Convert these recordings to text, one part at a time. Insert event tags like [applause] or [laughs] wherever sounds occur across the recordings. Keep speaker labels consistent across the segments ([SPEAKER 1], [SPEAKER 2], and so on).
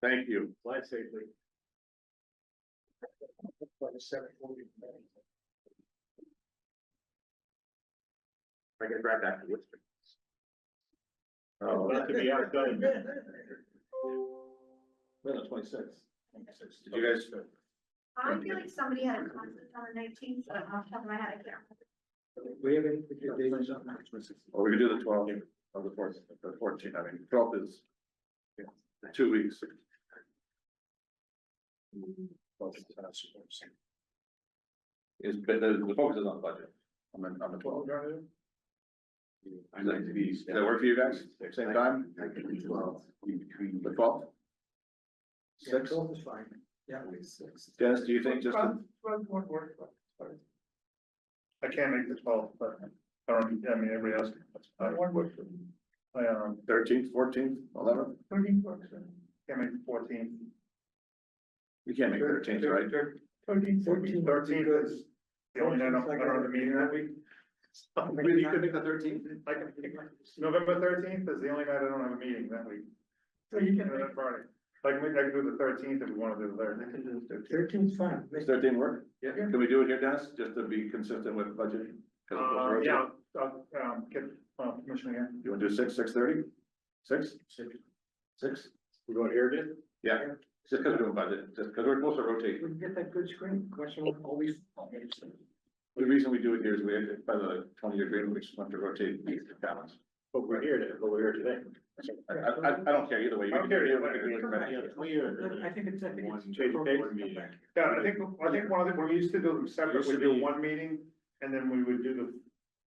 [SPEAKER 1] Thank you. Glad safely. I get right back to Worcester. Oh, that could be our gun.
[SPEAKER 2] Well, twenty-six.
[SPEAKER 1] Did you guys,
[SPEAKER 3] I feel like somebody had a conflict on the nineteenth, but off the top of my head, I can't.
[SPEAKER 2] We have any particular dates?
[SPEAKER 1] or we could do the twelfth or the fourth, the fourteenth, I mean, twelfth is yeah, two weeks. Is, but the, the focus is on budget, on the, on the twelfth. I'd like to be, does that work for you guys, same time?
[SPEAKER 4] I can do twelve.
[SPEAKER 1] The twelfth? Six,
[SPEAKER 2] Six is fine. Yeah. Six.
[SPEAKER 1] Dennis, do you think just, the-
[SPEAKER 4] I can't make the twelve, but, um, I mean, everybody else. I um,
[SPEAKER 1] thirteenth, fourteenth, eleventh?
[SPEAKER 4] thirteen works, uh, can't make the fourteen.
[SPEAKER 1] You can't make thirteenth, right?
[SPEAKER 4] Thirteen,
[SPEAKER 2] Fourteen.
[SPEAKER 4] Thirteen is the only night I'm, I don't have a meeting that week.
[SPEAKER 1] Maybe you could make the thirteenth.
[SPEAKER 4] I can, November thirteenth is the only night I don't have a meeting that week. So you can. That Friday, like, we, I can do the thirteenth if we wanna do the thirteenth. I can do the
[SPEAKER 2] Thirteen's fine.
[SPEAKER 1] Does thirteen work? Yeah. Can we do it here, Dennis, just to be consistent with budgeting? 'Cause of the
[SPEAKER 4] Uh,
[SPEAKER 1] road.
[SPEAKER 4] yeah, I'll, um, get, uh, permission again.
[SPEAKER 1] You wanna do six, six thirty? Six? Six?
[SPEAKER 2] We're going here, dude?
[SPEAKER 1] Yeah, just because we're doing budget, just because we're supposed to rotate.
[SPEAKER 2] We can get that good screen, question mark, always.
[SPEAKER 1] The reason we do it here is we, have- by the twenty-year agreement, we just want to rotate these balance.
[SPEAKER 2] But we're here, but we're here today.
[SPEAKER 1] I, I, I- I don't care either way. You
[SPEAKER 4] I
[SPEAKER 1] can
[SPEAKER 4] don't care
[SPEAKER 1] do it
[SPEAKER 4] either way.
[SPEAKER 1] either way.
[SPEAKER 2] I think it's, I think it's.
[SPEAKER 4] Yeah, I think, I think one of the, we used to do them separate, we do one meeting, and then we would do the,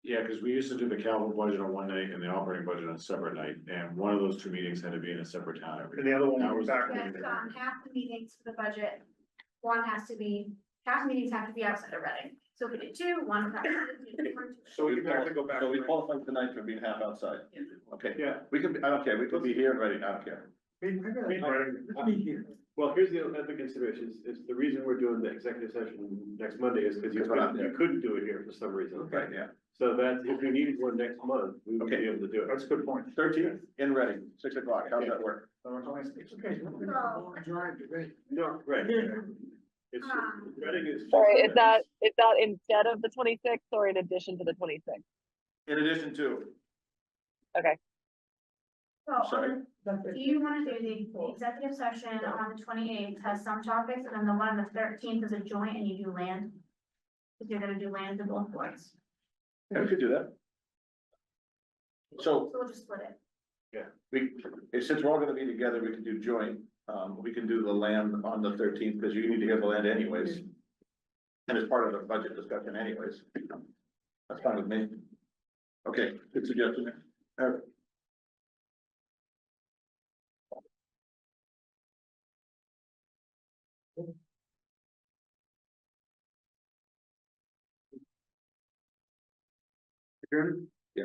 [SPEAKER 5] Yeah, because we used to do the capital budget on one night and the operating budget on a separate night, and one of those two meetings had to be in a separate town every.
[SPEAKER 4] and the other one
[SPEAKER 5] That
[SPEAKER 4] we
[SPEAKER 5] was-
[SPEAKER 4] was back.
[SPEAKER 3] Yes, um, half the meetings for the budget, one has to be, half the meetings have to be outside of Reading. So if we did two, one. has to be in Reading.
[SPEAKER 4] So we can actually go back.
[SPEAKER 1] So we
[SPEAKER 4] to it.
[SPEAKER 1] qualify tonight for being half outside. Okay,
[SPEAKER 4] Yeah.
[SPEAKER 1] we could, be- I don't care, we could be here and ready, I don't care.
[SPEAKER 4] we- we-
[SPEAKER 2] Let me hear.
[SPEAKER 6] Well, here's the other consideration, is, is the reason we're doing the executive session next Monday is because you
[SPEAKER 1] Because we're not
[SPEAKER 6] couldn't, you couldn't do it here for some reason.
[SPEAKER 1] Right, yeah.
[SPEAKER 6] So that, if we needed one next month, we would be
[SPEAKER 1] Okay.
[SPEAKER 6] able to do it.
[SPEAKER 4] That's a good point.
[SPEAKER 1] Thirteenth in ready, six o'clock. How does that work?
[SPEAKER 2] It's okay.
[SPEAKER 6] No, right, it's,
[SPEAKER 3] Um,
[SPEAKER 6] Reading is.
[SPEAKER 7] Sorry,
[SPEAKER 1] [laughs]
[SPEAKER 7] it's not, it's not instead of the twenty-sixth or in addition to the twenty-sixth.
[SPEAKER 1] In addition to,
[SPEAKER 3] So
[SPEAKER 1] Sorry.
[SPEAKER 3] on the- do you want to do the- the executive session on the twenty eighth has some topics and then the one on the thirteenth is a joint and you do land? Because you're gonna do land in both boards.
[SPEAKER 1] yeah, we could do that. So
[SPEAKER 3] So we'll just split it.
[SPEAKER 1] We, since we're all gonna be together, we can do joint, um, we can do the land on the thirteenth, because you need to get the land anyways. And it's part of the budget discussion anyways. That's fine with me. Okay, good suggestion. All right.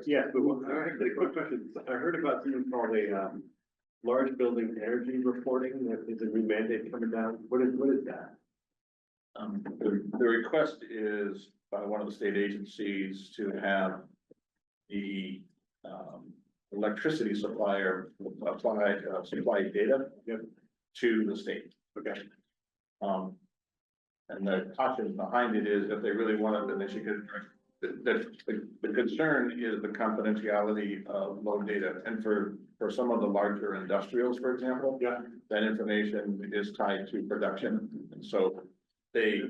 [SPEAKER 6] Yeah, but one, actually, a quick question. I heard about something called a, um, large building energy reporting, that is a new mandate coming down. What is, what is that?
[SPEAKER 1] Um, the, the request is by one of the state agencies to have the, um, electricity supplier apply, uh, supply data.
[SPEAKER 6] Yep.
[SPEAKER 1] To the state.
[SPEAKER 6] Okay.
[SPEAKER 1] Um, and the caution behind it is if they really want it, then they should get, the, the, the concern is the confidentiality of loan data. And for, for some of the larger industrials, for example.
[SPEAKER 6] Yeah.
[SPEAKER 1] That information is tied to production, and so they,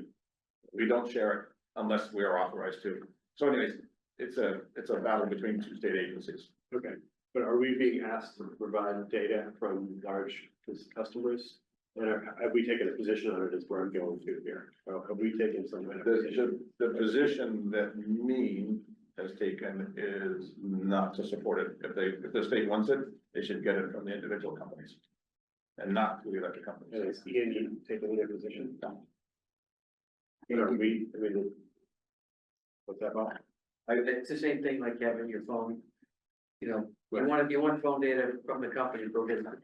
[SPEAKER 1] we don't share it unless we are authorized to. So anyways, it's a, it's a battle between two state agencies.
[SPEAKER 6] Okay, but are we being asked to provide data from large cus- customers? And are- have we taken a position on it is where I'm going to here? Or have we taken some? kind of position?
[SPEAKER 1] The, the, the position that Mean has taken is not to support it. If they, if the state wants it, they should get it from the individual companies. And not through the electric
[SPEAKER 6] And
[SPEAKER 1] companies.
[SPEAKER 6] is E and E taking their position? And are we, I mean. What's that about?
[SPEAKER 8] It's the same thing like having your phone, you know, you want, if you want phone data from the company, go get it from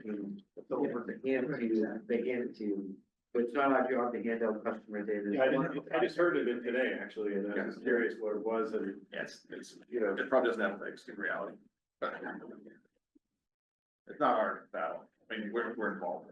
[SPEAKER 8] the phone, but they hand it to you, they hand it to you. But it's not our job to hand out customer data.
[SPEAKER 6] Yeah, I didn't, I just heard of it today, actually, and I was curious what it was and,
[SPEAKER 1] Yes, it's,
[SPEAKER 6] you know,
[SPEAKER 1] it probably doesn't have legs in reality, but. It's not our battle. I mean, we're, we're involved.